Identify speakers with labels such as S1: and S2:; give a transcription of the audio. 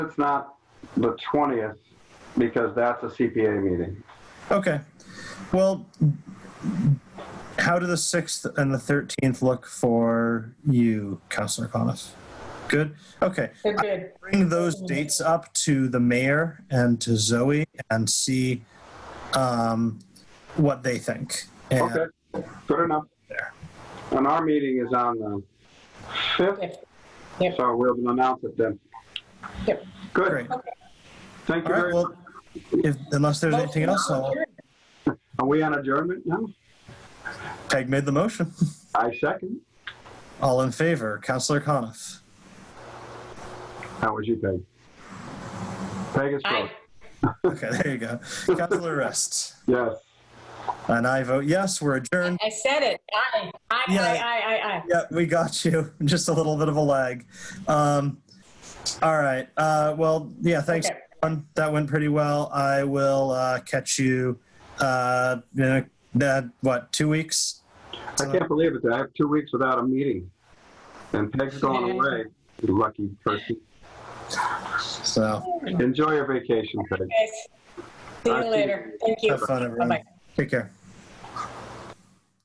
S1: It's not the 20th because that's a CPA meeting.
S2: Okay. Well, how do the 6th and the 13th look for you, Councilor Coniff? Good? Okay.
S3: They're good.
S2: Bring those dates up to the mayor and to Zoe and see um, what they think. And
S1: Okay, good enough.
S2: There.
S1: And our meeting is on the 5th,
S3: Yep. Yep.
S1: so we'll announce it then.
S3: Yep.
S1: Good,
S2: Great.
S1: thank
S2: All
S1: you
S2: right.
S1: very much.
S2: Well, if, unless there's anything else, I'll,
S1: Are we on adjournment now?
S2: Peg made the motion.
S1: I second.
S2: All in favor, Councilor Coniff.
S1: How was you, Peg? Peg is
S3: Aye.
S1: first.
S2: Okay, there you go. Councilor Rest.
S1: Yes.
S2: And I vote yes, we're adjourned.
S3: I said it. Aye. Aye, aye,
S2: Yeah.
S3: aye, aye, aye.
S2: Yeah, we got you. Just a little bit of a lag. Um, all right. Uh, well, yeah, thanks.
S3: Okay.
S2: everyone. That went pretty well. I will uh, catch you uh, in a, uh, what, two weeks?
S1: I can't believe it. I have two weeks without a meeting. And Peg's going away. You lucky person.
S2: So
S1: Enjoy your vacation, Peg.
S3: Guys, see
S1: Aye.
S3: you later. Thank you.
S2: have fun, everyone.
S3: Bye-bye.
S2: Take care.